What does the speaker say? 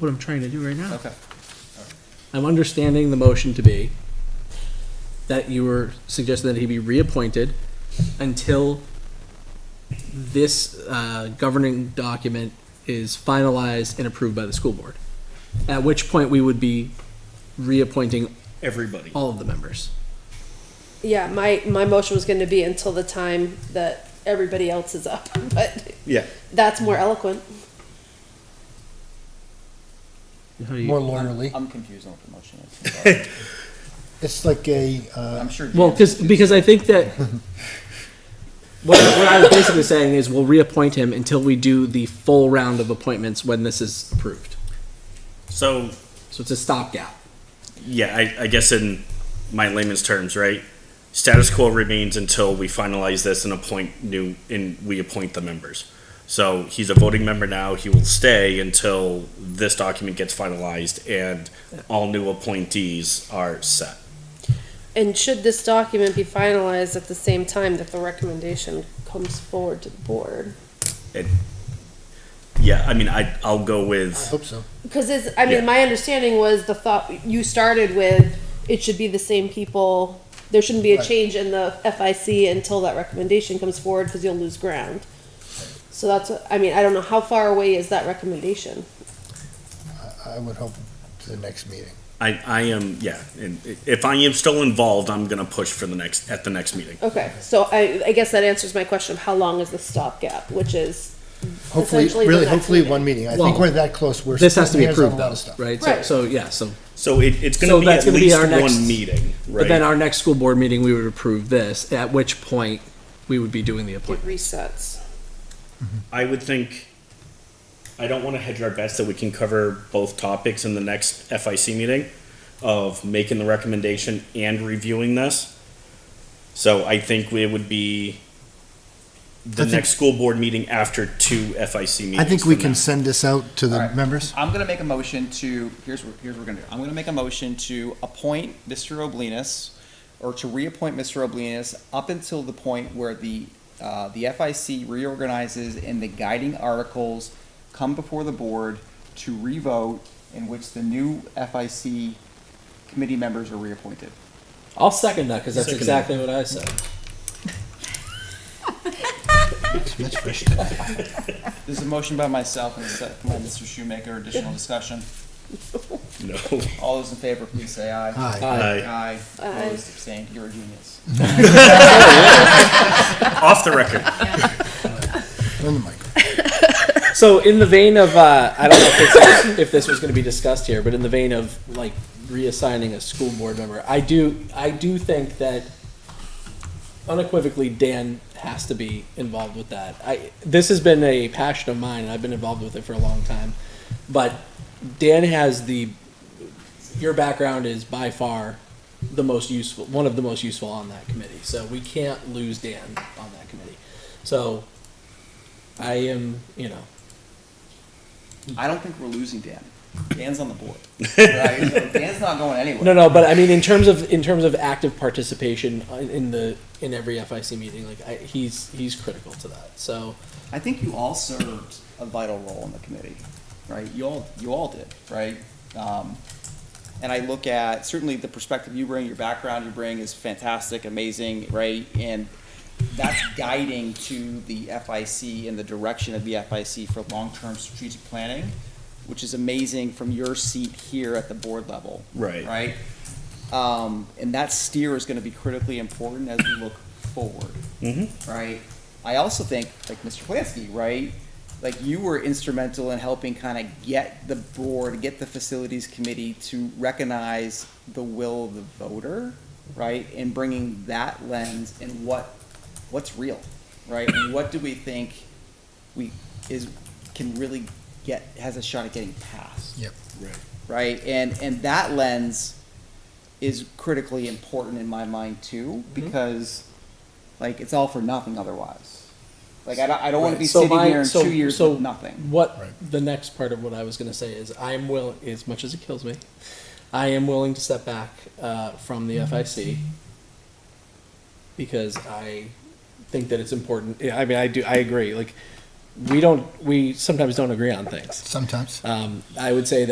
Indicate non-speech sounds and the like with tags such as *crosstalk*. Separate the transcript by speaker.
Speaker 1: what I'm trying to do right now.
Speaker 2: Okay.
Speaker 1: I'm understanding the motion to be that you were suggesting that he be reappointed until this uh, governing document is finalized and approved by the school board. At which point we would be reappointing
Speaker 2: Everybody.
Speaker 1: all of the members.
Speaker 3: Yeah, my, my motion was gonna be until the time that everybody else is up, *laughs* but
Speaker 2: Yeah.
Speaker 3: that's more eloquent.
Speaker 1: How do you-
Speaker 4: More lawyerly.
Speaker 2: I'm confused on what the motion is.
Speaker 4: It's like a, uh,
Speaker 2: I'm sure.
Speaker 1: Well,
Speaker 2: Dan-
Speaker 1: because because I think that what, what I was basically saying is we'll reappoint him until we do the full round of appointments when this is approved.
Speaker 5: So,
Speaker 1: So it's a stopgap.
Speaker 5: yeah, I, I guess in my layman's terms, right? Status quo remains until we finalize this and appoint new, and we appoint the members. So he's a voting member now, he will stay until this document gets finalized and all new appointees are set.
Speaker 3: And should this document be finalized at the same time that the recommendation comes forward to the board?
Speaker 5: Yeah, I mean, I, I'll go
Speaker 4: I
Speaker 5: with,
Speaker 4: hope so.
Speaker 3: Because it's, I
Speaker 5: Yeah.
Speaker 3: mean, my understanding was the thought, you started with, it should be the same people. There shouldn't be a
Speaker 4: Right.
Speaker 3: change in the FIC until that recommendation comes forward, because you'll lose ground. So that's, what- I mean, I don't know, how far away is that recommendation?
Speaker 4: I, I would hope to the next meeting.
Speaker 5: I, I am, yeah, and i- if I am still involved, I'm gonna push for the next, at the next meeting.
Speaker 3: Okay, so I, I guess that answers my question of how long is the stopgap, which is,
Speaker 4: Hopefully,
Speaker 3: Essentially the
Speaker 4: really,
Speaker 3: next
Speaker 4: hopefully
Speaker 3: meeting.
Speaker 4: one meeting. I
Speaker 1: Well,
Speaker 4: think we're that close. We're.
Speaker 1: This has to be
Speaker 4: splitting hairs on
Speaker 1: approved
Speaker 4: a lot
Speaker 1: though,
Speaker 4: of stuff.
Speaker 1: right? So,
Speaker 3: Right.
Speaker 1: so yeah, so
Speaker 5: So it, it's
Speaker 1: So
Speaker 5: gonna be
Speaker 1: that's
Speaker 5: at
Speaker 1: gonna be
Speaker 5: least
Speaker 1: our next-
Speaker 5: one meeting,
Speaker 1: but then
Speaker 5: right?
Speaker 1: our next school board meeting we would approve this, at which point we would be doing the
Speaker 3: it
Speaker 1: appointment.
Speaker 3: resets.
Speaker 5: I would think, I don't wanna hedge our bets that we can cover both topics in the next FIC meeting of making the recommendation and reviewing this. So I think it would be the
Speaker 4: I think-
Speaker 5: next school board meeting after two FIC meetings.
Speaker 4: I think we
Speaker 5: from
Speaker 4: can
Speaker 5: now.
Speaker 4: send this out to
Speaker 2: All
Speaker 4: the
Speaker 2: right.
Speaker 4: members.
Speaker 2: I'm gonna make a motion to, here's what, here's what we're gonna do. I'm gonna make a motion to appoint Mr. Oblinus, or to reappoint Mr. Oblinus up until the point where the, uh, the FIC reorganizes and the guiding articles come before the board to revote in which the new FIC committee members are reappointed.
Speaker 1: I'll second that because that's
Speaker 5: Second.
Speaker 1: exactly what I said.
Speaker 2: This is a motion by myself and a second by Mr. Shoemaker, additional discussion.
Speaker 5: *laughs* No.
Speaker 2: All those in favor, please say aye.
Speaker 4: Aye.
Speaker 5: Aye.
Speaker 2: Aye,
Speaker 3: Aye.
Speaker 2: opposed, abstained, you're a genius.
Speaker 5: Off the record.
Speaker 4: Turn the mic.
Speaker 1: So in the vein of, uh, I don't know if this, if this was gonna be discussed here, but in the vein of like reassigning a school board member, I do, I do think that unequivocally Dan has to be involved with that. I, this has been a passion of mine and I've been involved with it for a long time. But Dan has the, your background is by far the most useful, one of the most useful on that committee. So we can't lose Dan on that committee. So I am, you know,
Speaker 2: I don't think we're losing Dan. Dan's on the board. Right? So Dan's not going anywhere.
Speaker 1: No, no, but I mean, in terms of in terms of active participation in, in the in every FIC meeting, like I, he's he's critical to that. So
Speaker 2: I think you all served a vital role in the committee, right? You all, you all did, right? Um, and I look at certainly the perspective you bring, your background you bring is fantastic, amazing, right? And that's guiding to the FIC and the direction of the FIC for long-term strategic planning, which is amazing from your seat here at the board level.
Speaker 5: Right.
Speaker 2: Right? Um, and that steer is gonna be critically important as we look forward. Right? I also think, like Mr. Plansky, right? Like you were instrumental in helping kind of get the board, get the facilities committee to recognize the will of the voter, right? And bringing that lens and what, what's real, right? And what do we think we, is, can really get, has a shot at getting passed?
Speaker 4: Yep.
Speaker 2: right? And and that lens is critically important in my mind too,
Speaker 1: Mm-hmm.
Speaker 2: because like it's all for nothing otherwise. Like I don't, I don't want to be
Speaker 1: so
Speaker 2: sitting
Speaker 1: my-
Speaker 2: here in
Speaker 1: so-
Speaker 2: two years
Speaker 1: so
Speaker 2: with nothing.
Speaker 1: What
Speaker 4: Right.
Speaker 1: the next part of what I was going to say is, I'm willing, as much as it kills me, I am willing to step back uh, from the
Speaker 2: Mm-hmm.
Speaker 1: FIC because I think that it's important. Yeah, I mean, I do, I agree. Like we don't, we sometimes don't agree on things.
Speaker 4: Sometimes.
Speaker 1: Um, I would say that.